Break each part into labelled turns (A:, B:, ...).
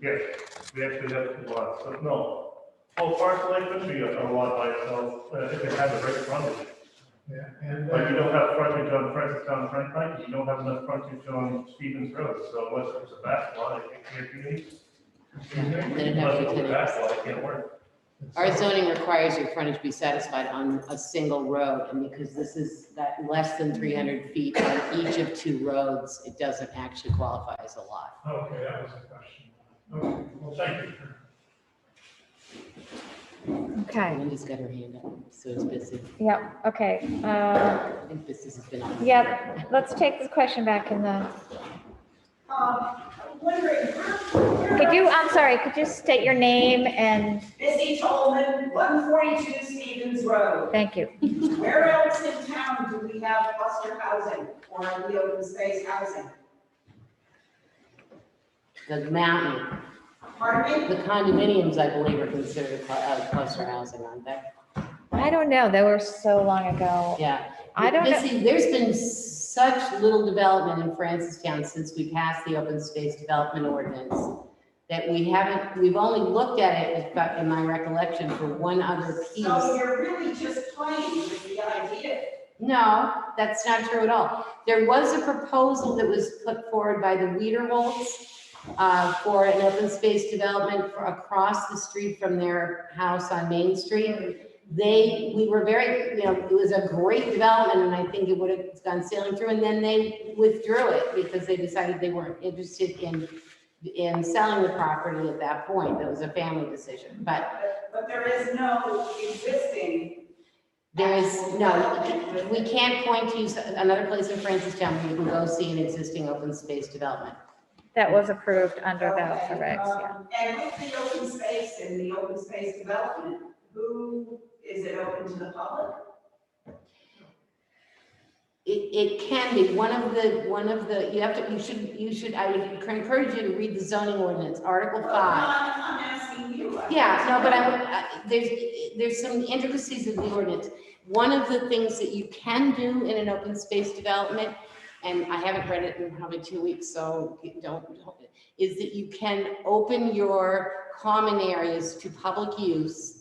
A: Yes, we actually have two lots, but no. Well, parcel A could be a a lot by itself, uh, if it had the right frontage.
B: Yeah, and,
A: But you
B: uh,
A: don't have frontage on Francis Town Turnpike, you don't have enough frontage on Stevens Road, so unless there's a back lot, it can't be made.
C: Then it'd have to be
A: Unless there's a
C: ten
A: back lot, it can't work.
C: Our zoning requires your frontage be satisfied on a single road, and because this is that less than three hundred feet on each of two roads, it doesn't actually qualify as a lot.
B: okay, that was the question. Okay, well, thank you.
D: Okay,
C: Linda's got her hand up, so it's busy.
D: yeah, okay. Uh,
C: I think business has been on.
D: yeah, let's take this question back in the,
E: Um, I'm wondering, where-
D: could you, I'm sorry, could you state your name and,
E: Busy Tolman, one forty-two Stevens Road.
D: thank you.
E: Where else in town do we have cluster housing or the open space housing?
C: The mountain,
E: Pardon me?
C: the condominiums, I believe, are considered a cl- uh, cluster housing, aren't they?
D: I don't know, they were so long ago.
C: Yeah.
D: I don't know.
C: Missy, There's been such little development in Francistown since we passed the open space development ordinance that we haven't, we've only looked at it, if I- in my recollection, for one other piece.
E: So you're really just playing with the idea.
C: No, that's not true at all. There was a proposal that was put forward by the Weiderholtz uh, for an open space development for- across the street from their house on Main Street. They, we were very, you know, it was a great development and I think it would have gone sailing through. And then they withdrew it because they decided they weren't interested in, in selling the property at that point. That was a family decision, but
E: But but there is no existing.
C: there is,
E: actual development
C: no,
E: with-
C: we can't point to s- another place in Francistown where you can go see an existing open space development.
D: That was approved under
E: Okay,
D: the regs, yeah.
E: um, And with the open space and the open space development, who, is it open to the public?
C: It, it can be, one of the, one of the, you have to, you should, you should, I would encourage you to read the zoning ordinance, Article
E: Well,
C: five.
E: I'm I'm asking you. I'm
C: Yeah, no, but
E: asking you.
C: I, I- there's, there's some intricacies of the ordinance. One of the things that you can do in an open space development, and I haven't read it in probably two weeks, so don't, is that you can open your common areas to public use.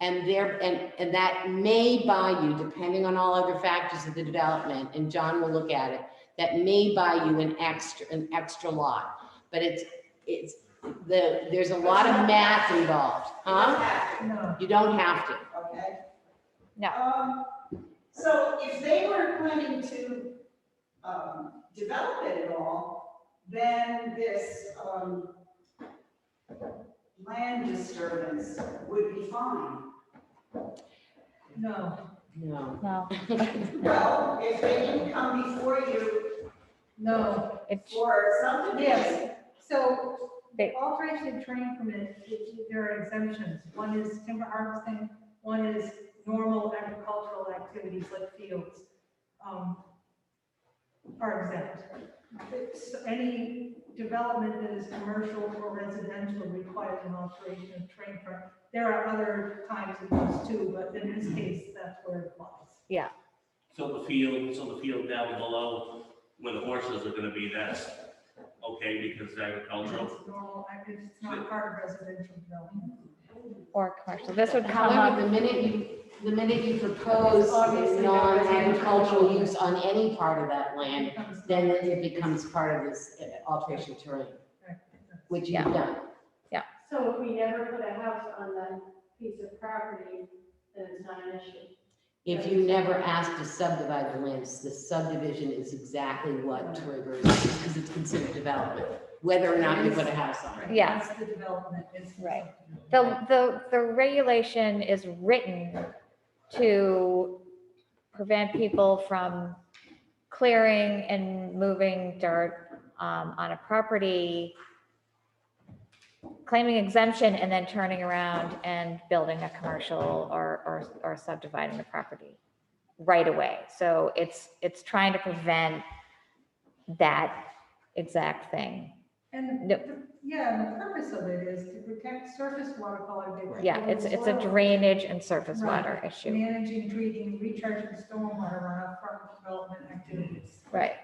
C: And there, and, and that may buy you, depending on all other factors of the development, and John will look at it, that may buy you an extra, an extra lot. But it's, it's the, there's a lot of math involved, huh? You don't have to.
E: Okay.
D: No.
E: Um, So if they were planning to um, develop it at all, then this um, land disturbance would be fine.
F: No.
C: No.
D: No,
E: Well, if they didn't come before you
F: No,
D: it,
E: for something,
F: Yes. so
D: They-
F: alteration and training permit, there are exemptions. One is timber harvesting, one is normal agricultural activities like fields. um, Are exempt. It's- Any development that is commercial or residential requires an alteration and training permit. There are other times of those too, but in this case, that's where it applies.
G: So the field, so the field down below where the horses are gonna be, that's okay because it's agricultural.
F: It's normal, I mean, it's not part of residential development.
D: or commercial, this would come
C: However,
D: up,
C: the minute you, the minute you propose
F: Obviously, that was-
C: non-agricultural use on any part of that land,
F: It comes-
C: then it becomes part of this uh, alteration terrain, which you've
D: Yeah.
C: done.
H: So if we never put a house on that piece of property, then it's not an issue.
C: If you never ask to subdivide the lands, the subdivision is exactly what triggers, because it's considered development, whether or not you put a house on it.
D: Yeah.
F: That's the development, it's.
D: Right. the, the, the regulation is written to prevent people from clearing and moving dirt um, on a property, claiming exemption and then turning around and building a commercial or, or, or subdividing the property right away. So it's, it's trying to prevent that exact thing.
F: And,
D: Yep.
F: the- yeah, and the purpose of it is to protect surface water quality.
D: Yeah, it's, it's a drainage and surface
F: Right.
D: water issue.
F: Managing, treating, recharging stormwater runoff from development activities.
D: Right,